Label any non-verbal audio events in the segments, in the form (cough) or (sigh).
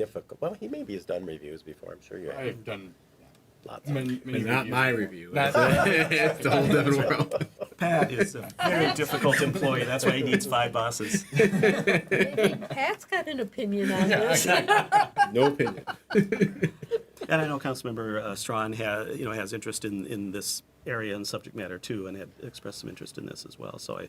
difficult. Well, he maybe has done reviews before. I'm sure you have I've done lots. of many, many But not my reviews. review. Not- it's a whole different world. Pat is a (laughs) very difficult employee. That's why he needs five bosses. (laughs) Maybe Pat's got an opinion on this. No opinion. And I know Councilmember uh, Strawn has, you know, has interest in, in this area and subject matter too, and had expressed some interest in this as well. So I,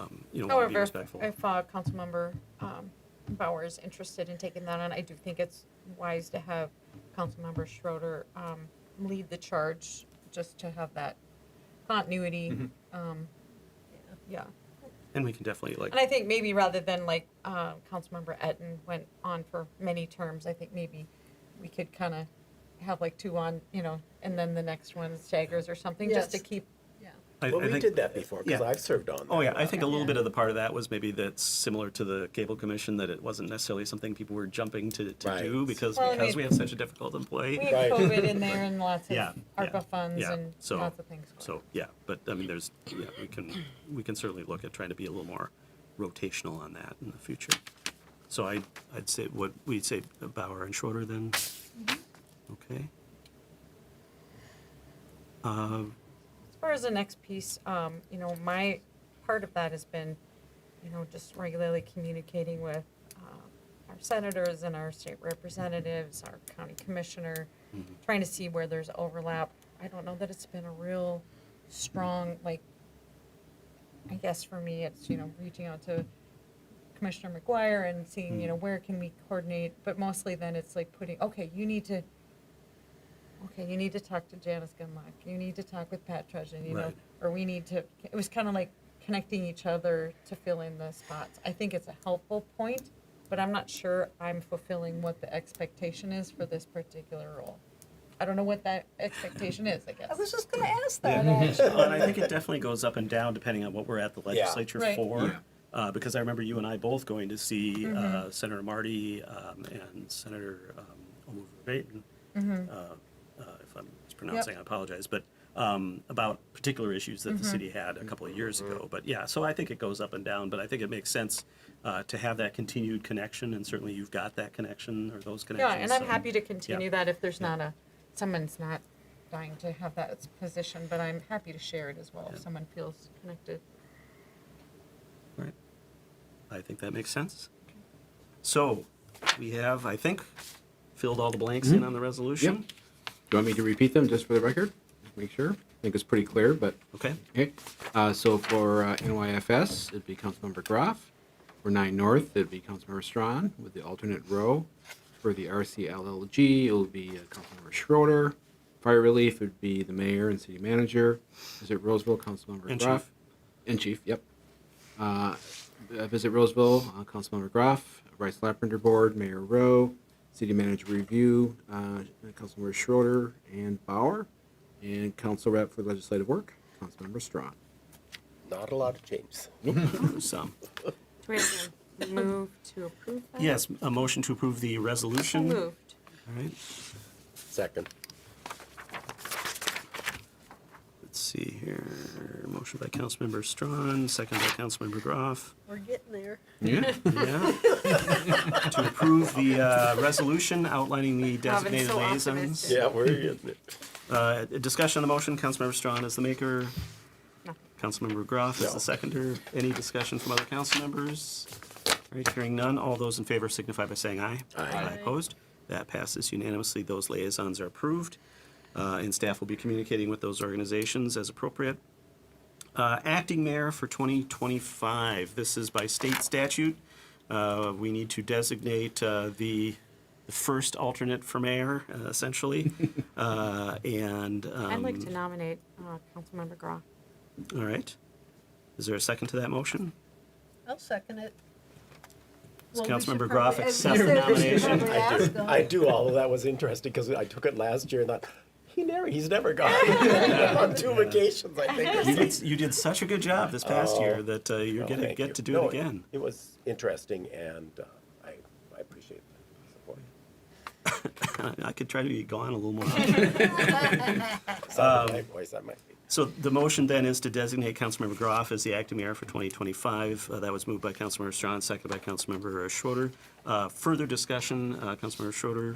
um, you know, want to be However, respectful. if uh, Councilmember um, Bauer is interested in taking that on, I do think it's wise to have Councilmember Schroeder um, lead the charge, just to have that continuity. Mm-hmm. um, Yeah, And we can definitely and I like, think maybe rather than like uh, Councilmember Etten went on for many terms, I think maybe we could kind of have like two on, you know, and then the next one staggers or something, just to Yes. keep I well, I we think- did that before because yeah. I've served on. Oh, that yeah, I one. think a little bit of the part of that was maybe that's similar to the cable commission, that it wasn't necessarily something people were jumping to, to Right. do because, Well, because we we- have such a difficult We employee. had Right. COVID (laughs) in there and lots of Yeah, yeah, ARPA funds yeah. and So- lots of things. going So, yeah, but I mean, there's, yeah, we can, we can certainly look at trying to be a little more rotational on that in the future. So I, I'd say, what, we'd say Bauer and Schroeder then? Mm-hmm. Okay. Uh, As far as the next piece, um, you know, my part of that has been, you know, just regularly communicating with uh, our senators and our state representatives, our county commissioner, trying to see where there's overlap. I don't know that it's been a real strong, like, I guess for me, it's, you know, reaching out to Commissioner McGuire and seeing, you know, where can we coordinate? But mostly then it's like putting, okay, you need to, okay, you need to talk to Janice Gunlock, you need to talk with Pat Trudgeon, you know, Right. or we need to, it was kind of like connecting each other to fill in the spots. I think it's a helpful point, but I'm not sure I'm fulfilling what the expectation is for this particular role. I don't know what that expectation is, I guess. I was just gonna ask that, Uh, actually. Well, and I think it definitely goes up and down depending on what we're at the legislature Right. Yeah. for. Uh, because I remember you and I both going to see Mm-hmm. uh, Senator Marty um, and Senator um, Baton. Mm-hmm. Uh, uh, if I'm mispronouncing, I apologize, but um, about particular issues Mm-hmm. that the city had a couple of years ago. But yeah, so I think it goes up and down. But I think it makes sense uh, to have that continued connection, and certainly you've got that connection or those Yeah, connections. and I'm so- happy to continue that if there's not a, someone's not dying to have that as a position, but I'm happy to share it as well if someone feels connected. Right. I think that makes sense. So we have, I think, filled all the blanks in on the resolution. Do you want me to repeat them just for the record? Make sure. I think it's pretty clear, but Okay. okay. Uh, so for uh, NYFS, it'd be Councilmember Graff. For 9 North, it'd be Councilmember Strawn with the alternate row. For the RCLLG, it'll be uh, Councilmember Schroeder. Fire Relief would be the mayor and city manager. Visit Roseville, Councilmember And Graff. chief. And chief, yep. Uh, uh, Visit Roseville, uh, Councilmember Graff, Rice Lappender Board, Mayor Rowe, City Manager Review, uh, Councilmember Schroeder and Bauer, and Council Rep for Legislative Work, Councilmember Strawn. Not a lot of changes. Some. Do we have (coughs) to move to approve that? Yes, a motion to approve the resolution. Moved. All right. Second. Let's see here. Motion by Councilmember Strawn, second by Councilmember Graff. We're getting there. Yeah. Yeah. To approve the uh, resolution outlining the designated so liaisons. optimistic. Yeah, where are you? it? Uh, Discussion on the motion, Councilmember Strawn is the maker. No. Councilmember Graff is No. the seconder. Any discussion from other council members? All right, hearing none. All those in favor signify by saying aye. Aye. Aye. Opposed? That passes unanimously. Those liaisons are approved, uh, and staff will be communicating with those organizations as appropriate. Uh, Acting mayor for 2025. This is by state statute. Uh, We need to designate uh, the the first alternate for mayor, uh, (laughs) essentially. Uh, And, I'd um, like to nominate uh, Councilmember Grau. all right. Is there a second to that motion? I'll second it. Does Well, we should Councilmember probably- Graff as you accept said, the we should nomination? probably I ask do. them. (laughs) I do. Although that was interesting because I took it last year and thought he never, he's never (laughs) gone (laughs) on two vacations. I think. You did, you did such a good job this past year that uh, you're Oh, going to thank you. get to do No, (laughs) it again. (laughs) It was interesting, and uh, I, I appreciate the support. Um, (laughs) I could try to be gone a little more. often. Sound of my voice, I might be. So the motion then is to designate Councilmember Groff as the acting mayor for 2025. Uh, That was moved by Councilmember Strawn, seconded by Councilmember Schroeder. Uh, Further discussion, uh, Councilmember Schroeder,